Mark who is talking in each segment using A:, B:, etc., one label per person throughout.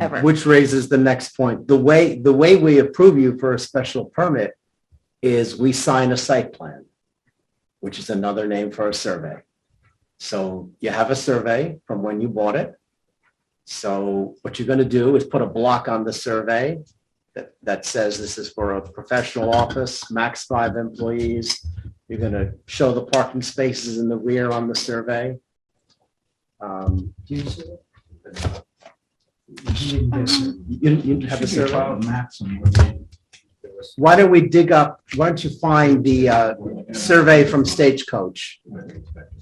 A: ever.
B: Which raises the next point. The way, the way we approve you for a special permit is we sign a site plan, which is another name for a survey. So you have a survey from when you bought it. So what you're going to do is put a block on the survey that, that says this is for a professional office, max five employees. You're going to show the parking spaces in the rear on the survey. Um, You, you have a survey? Why don't we dig up, why don't you find the uh, survey from Stagecoach?
A: And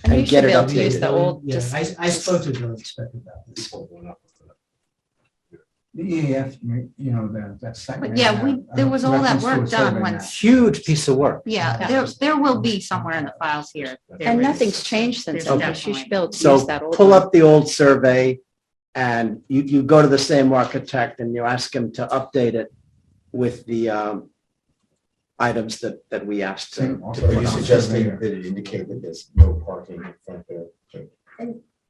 A: you
B: and
A: should
B: get
A: be
B: it
A: able to use
B: updated.
A: the old,
C: Yeah,
A: just,
C: I, I spoke to the building inspector about this. The EAF, you know, the, that uh, site.
D: But yeah, we, there was all that work done once.
B: Huge piece of work.
D: Yeah,
A: Yeah.
D: there, there will be somewhere in the files here. There
A: and
D: is.
A: nothing's changed since
D: There's
A: then. You should be able to
B: So
A: use that old.
B: pull
A: one.
B: up the old survey and you, you go to the same architect and you ask him to update it with the um, items that, that we asked to. to
C: Also,
E: So
B: put
E: Are
B: on.
E: you suggesting that it indicate that there's no parking in front of the?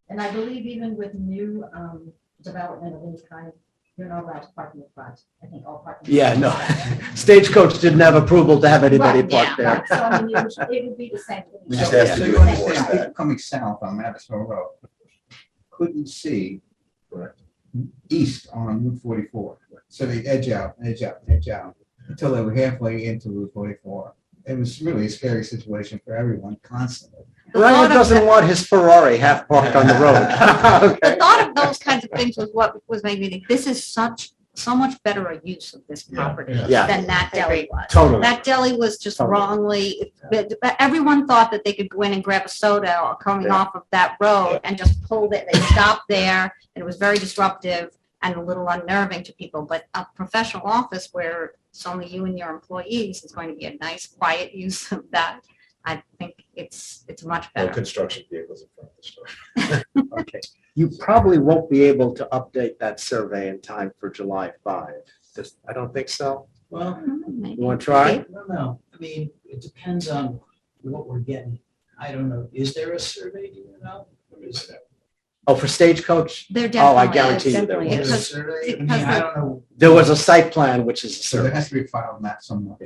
F: And I believe even with new um, development of any kind, you're not allowed to park in the front. I think all parking.
B: Yeah, no. Stagecoach didn't have approval to have anybody
F: Right,
B: parked
F: Right,
B: there.
F: So I mean, it would- it would be the same. thing.
E: We just asked
C: So
E: you
C: you
E: to enforce
C: understand,
E: that.
C: people coming south on Madison Road couldn't see
E: Correct.
C: east on Route forty-four. So they edge out, edge out, edge out, until they were halfway into Route forty-four. It was really a scary situation for everyone constantly.
D: The
B: Well,
D: thought of
B: doesn't
D: the-
B: want his Ferrari half parked on the road.
D: The thought of those kinds of things was what was making me think, this is such, so much better a use of this
E: Yeah,
D: property
E: yeah.
B: Yeah.
D: than that deli was.
B: Totally.
D: That deli was just
B: Totally.
D: wrongly, but but everyone thought that they could go in and grab a soda or coming
B: Yeah.
D: off of that road and just pulled it. They stopped there. and It was very disruptive and a little unnerving to people, but a professional office where it's only you and your employees is going to be a nice, quiet use of that. I think it's, it's much
E: No
D: better.
E: construction vehicles in front of the store.
B: Okay, you probably won't be able to update that survey in time for July five. Just- I don't think so.
G: Well,
B: You want to try?
G: I don't know. I mean, it depends on what we're getting. I don't know. Is there a survey, do you know? Or is there-
B: Oh, for Stagecoach,
D: There
B: Oh, I
D: definitely
B: guarantee
D: is.
B: you there
A: definitely
G: Is there a
B: was.
D: Because-
G: survey? I mean,
D: because
G: I
D: the-
G: don't know.
B: There was a site plan, which is a
C: So there
B: survey.
C: has to be a filed map somewhere.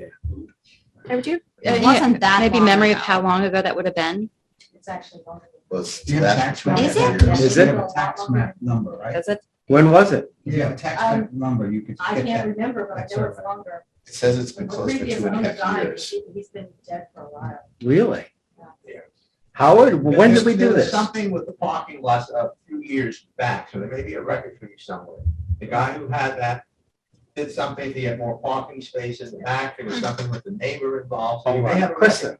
A: Hey, would you-
D: It
A: Yeah,
D: wasn't that
A: Maybe
D: long
A: memory of
D: ago.
A: how long ago that would have been?
F: It's actually wonderful.
E: Was
C: Do you have a tax map?
D: Is it?
C: Yeah,
B: Is
C: you
B: it?
C: have a Tax map number, right?
A: Does it?
B: When was it?
C: If you have a tax
F: Um,
C: map number, you could
F: I
C: get
F: can't
C: that.
F: remember, but I know it's
C: That's
F: longer.
E: It says it's
F: The
E: been closed for
F: previous
E: two and a
F: owner
E: half
F: died.
E: years.
F: He- He's been dead for a while.
B: Really?
C: Yeah.
B: Howard, when did we
C: There
B: do
C: was
B: this?
C: Something with the parking lots a few years back, so there may be a record for you somewhere. The guy who had that did something, he had more parking space in the back, there was something with the neighbor involved. so you may have a
B: Kristen,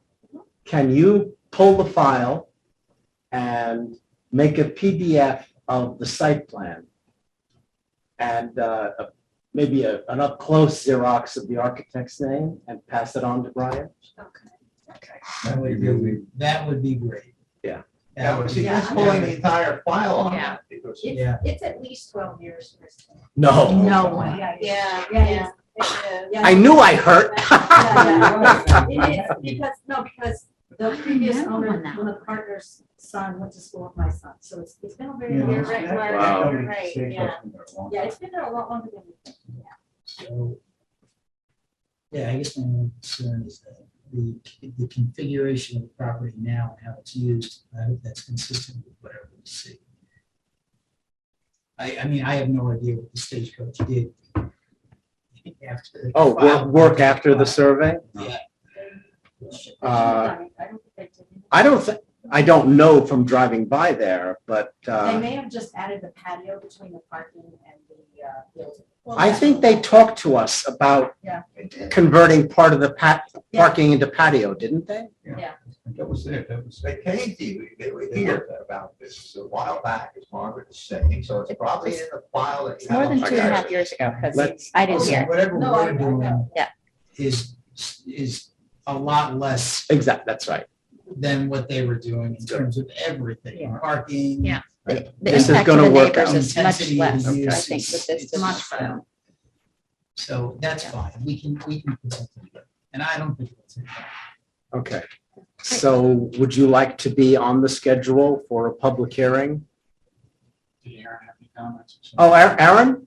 B: can you pull the file and make a PDF of the site plan? And uh, a- maybe a- an up-close Xerox of the architect's name and pass it on to Brian?
G: That would be- That would be great.
B: Yeah.
G: That would be.
F: Yeah, I'm
C: pulling the entire file on
D: Yeah.
C: that because.
G: Yeah.
F: It's, it's at least twelve years. Kristen.
B: No.
D: No way.
F: Yeah, yeah,
D: Yeah,
F: yeah. it's- yeah.
B: I knew I hurt.
F: Yeah, yeah, It is, because, no, because the previous
D: remember
F: owner,
D: now.
F: one of the partner's son went to school with my son, so it's, it's been a very.
C: Yeah.
F: long
C: You're
F: time.
C: right,
B: right, Wow.
F: Yeah, it's been there a lot longer than we think.
G: So, Yeah, I guess my only concern is that the, the configuration of the property now and how it's used, I hope that's consistent with whatever we see. I, I mean, I have no idea what the stagecoach did. after-
B: Oh, work, work after the survey? Uh,
F: I don't think they did.
B: I don't, thi- I don't know from driving by there, but
F: They
B: uh,
F: may have just added the patio between the parking and the, uh, building.
B: I think they talked to us about
F: Yeah.
B: converting part of the pat,
F: Yeah.
B: parking into patio, didn't they?
C: That was it, that was. They came to you, they were here about this a while back, as Margaret was saying, so it's probably in the file that. you
A: It's more
C: have
A: than
C: on
A: two and a
C: file.
A: half years ago, because
B: Oh Let's-
A: I didn't hear.
G: Whatever
F: No, I-
G: we're doing.
A: Yeah.
G: Is, is a lot less
B: Exactly, that's right.
G: than what they were doing in terms of everything,
C: Yeah.
G: parking.
D: Yeah.
A: The
B: This is
A: the impact to
B: gonna
A: the
B: work
A: neighbors
B: out.
A: is much
G: Intensity
A: less,
G: of
A: I
G: use
A: think, with
G: is-
A: this.
G: is
D: Much better.
G: So that's fine, we can, we can. present it. And I don't think. it's in there.
B: Okay. So would you like to be on the schedule for a public hearing?
G: Did Aaron have any comments?
B: Oh, Aa- Aaron?